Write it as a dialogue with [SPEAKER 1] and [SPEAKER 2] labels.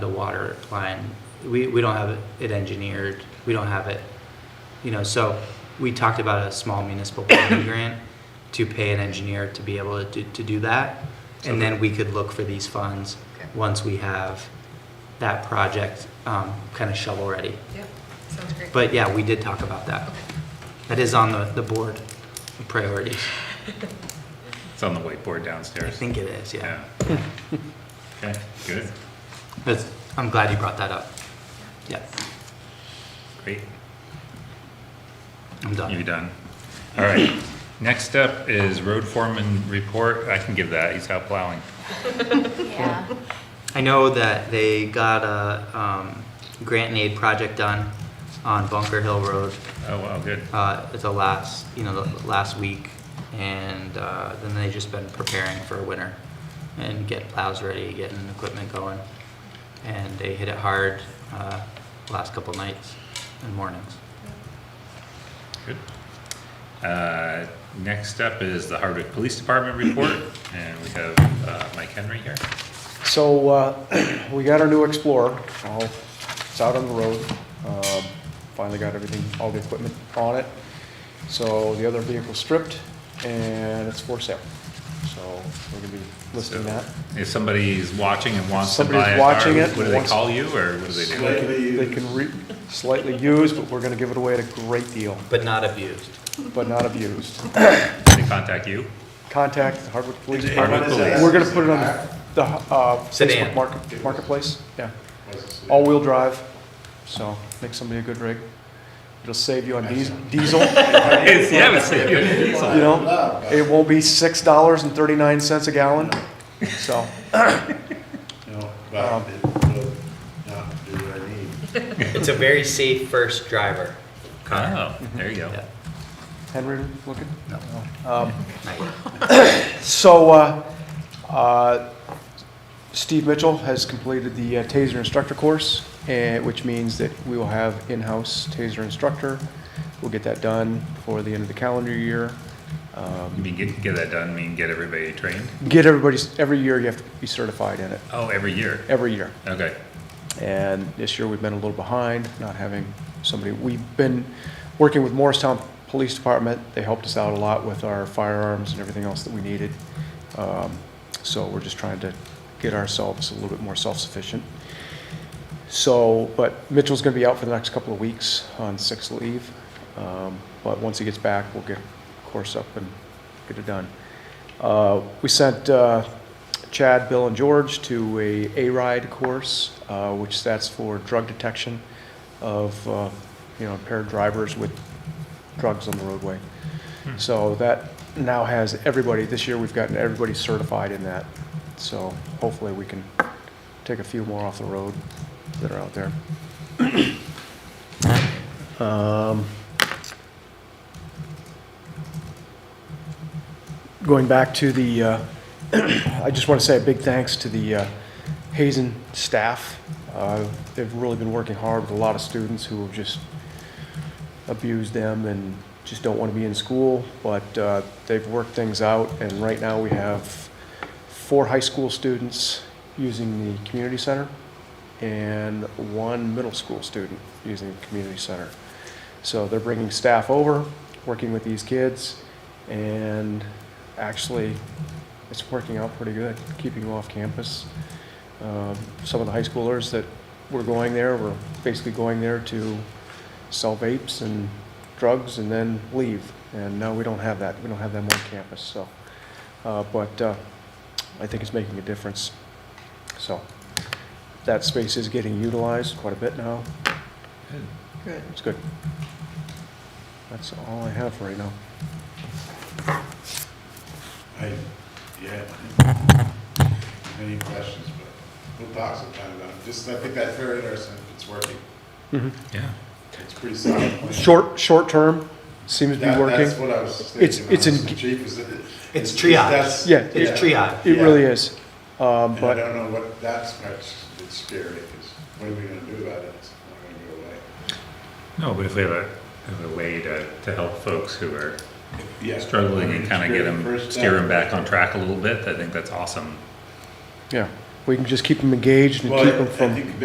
[SPEAKER 1] the water line. We, we don't have it engineered, we don't have it, you know, so we talked about a small municipal planning grant to pay an engineer to be able to, to do that. And then we could look for these funds
[SPEAKER 2] Okay.
[SPEAKER 1] once we have that project, um, kind of shovel ready.
[SPEAKER 2] Yep, sounds great.
[SPEAKER 1] But yeah, we did talk about that. That is on the, the board of priorities.
[SPEAKER 3] It's on the whiteboard
[SPEAKER 1] I
[SPEAKER 3] downstairs.
[SPEAKER 1] think it is, yeah.
[SPEAKER 3] Yeah. Okay, good,
[SPEAKER 1] That's, I'm glad you brought that up. Yeah,
[SPEAKER 3] great.
[SPEAKER 1] I'm done.
[SPEAKER 3] You're done. All right. Next up is road foreman report. I can give that. He's out plowing.
[SPEAKER 4] Yeah,
[SPEAKER 1] I know that they got a um, grant and aid project done on Bunker Hill Road.
[SPEAKER 3] Oh, wow, good.
[SPEAKER 1] Uh, it's the last, you know, the last week, and uh, then they just been preparing for winter and get plows ready, getting equipment going, and they hit it hard uh, last couple nights and mornings.
[SPEAKER 3] Good. Uh, Next up is the Hardwick Police Department report, and we have uh, Mike Henry here.
[SPEAKER 5] So, uh, we got our new Explorer, Well, it's out on the road, Um, finally got everything, all the equipment on it. So the other vehicle stripped, and it's for sale. So, we're gonna be listing
[SPEAKER 3] So,
[SPEAKER 5] that.
[SPEAKER 3] If somebody's watching and wants to
[SPEAKER 5] Somebody's
[SPEAKER 3] buy a
[SPEAKER 5] watching
[SPEAKER 3] car,
[SPEAKER 5] it,
[SPEAKER 3] what do they
[SPEAKER 5] wants-
[SPEAKER 3] call you, or what do they do?
[SPEAKER 5] They can- They can re, slightly used, but we're gonna give it away at a great deal,
[SPEAKER 1] But not abused.
[SPEAKER 5] but not abused.
[SPEAKER 3] They contact you?
[SPEAKER 5] Contact the Hardwick Police
[SPEAKER 3] Hey, what
[SPEAKER 5] Department.
[SPEAKER 3] is that?
[SPEAKER 5] We're gonna put it on the- the, uh,
[SPEAKER 1] Sedan.
[SPEAKER 5] Facebook market, marketplace, yeah. All-wheel drive, so make somebody a good rig. It'll save you on dies- diesel, you
[SPEAKER 3] It's- Yeah, it's it's-
[SPEAKER 5] know? It won't be six dollars and thirty-nine cents a gallon, so,
[SPEAKER 6] No,
[SPEAKER 5] Um,
[SPEAKER 6] but it will not do what I need.
[SPEAKER 1] It's a very safe first driver.
[SPEAKER 3] Oh, there you go.
[SPEAKER 1] Yeah.
[SPEAKER 5] Henry looking?
[SPEAKER 1] No.
[SPEAKER 5] Um,
[SPEAKER 1] Nice.
[SPEAKER 5] So, uh, uh, Steve Mitchell has completed the uh, taser instructor course, eh, which means that we will have in-house taser instructor. We'll get that done before the end of the calendar year. Um,
[SPEAKER 3] You mean get, get that done, mean get everybody trained?
[SPEAKER 5] Get everybody's, every year you have to be certified in it,
[SPEAKER 3] Oh, every year?
[SPEAKER 5] every year.
[SPEAKER 3] Okay.
[SPEAKER 5] And this year, we've been a little behind, not having somebody, we've been working with Morristown Police Department. They helped us out a lot with our firearms and everything else that we needed. Um, So we're just trying to get ourselves a little bit more self-sufficient. So, but Mitchell's gonna be out for the next couple of weeks on sick leave. Um, But once he gets back, we'll get course up and get it done. Uh, We sent uh, Chad, Bill, and George to a A-RIDE course, uh, which that's for drug detection of, uh, you know, impaired drivers with drugs on the roadway. So that now has everybody, this year we've gotten everybody certified in that. So hopefully we can take a few more off the road that are out there. Um, Going back to the, uh, I just want to say a big thanks to the uh, Hazen staff. Uh, They've really been working hard with a lot of students who have just abused them and just don't want to be in school, but uh, they've worked things out, and right now we have four high school students using the community center and one middle school student using the community center. So they're bringing staff over, working with these kids, and actually, it's working out pretty good, keeping them off campus. Um, Some of the high schoolers that were going there were basically going there to sell vapes and drugs and then leave. And now we don't have that. We don't have them on campus, so. uh, But uh, I think it's making a difference. So that space is getting utilized quite a bit now.
[SPEAKER 2] Good.
[SPEAKER 5] It's good. That's all I have for right now.
[SPEAKER 6] I, yeah. Any questions, but we'll talk sometime about it. Just, I think that's very interesting. It's working. Mm-hmm.
[SPEAKER 3] Yeah.
[SPEAKER 6] It's pretty solid. plan.
[SPEAKER 5] Short, short term seems to be
[SPEAKER 6] That-
[SPEAKER 5] working.
[SPEAKER 6] That's what I was thinking.
[SPEAKER 5] It's- it's
[SPEAKER 6] when I was
[SPEAKER 5] en-
[SPEAKER 6] Chief is.
[SPEAKER 1] It's triage.
[SPEAKER 6] that's-
[SPEAKER 5] Yeah,
[SPEAKER 1] It's triage.
[SPEAKER 5] It
[SPEAKER 6] yeah.
[SPEAKER 5] really is. Um,
[SPEAKER 6] And I
[SPEAKER 5] But
[SPEAKER 6] don't know what, that's much, it's scary, because what are we gonna do about it? It's not
[SPEAKER 3] No,
[SPEAKER 6] gonna go away.
[SPEAKER 3] but if we have a, have a way to, to help folks who are
[SPEAKER 6] Yeah.
[SPEAKER 3] struggling and kind of get
[SPEAKER 6] First
[SPEAKER 3] them,
[SPEAKER 6] step.
[SPEAKER 3] steer them back on track a little bit, I think that's awesome.
[SPEAKER 5] Yeah, we can just keep them engaged and
[SPEAKER 6] Well,
[SPEAKER 5] keep them
[SPEAKER 6] I
[SPEAKER 5] from.
[SPEAKER 6] think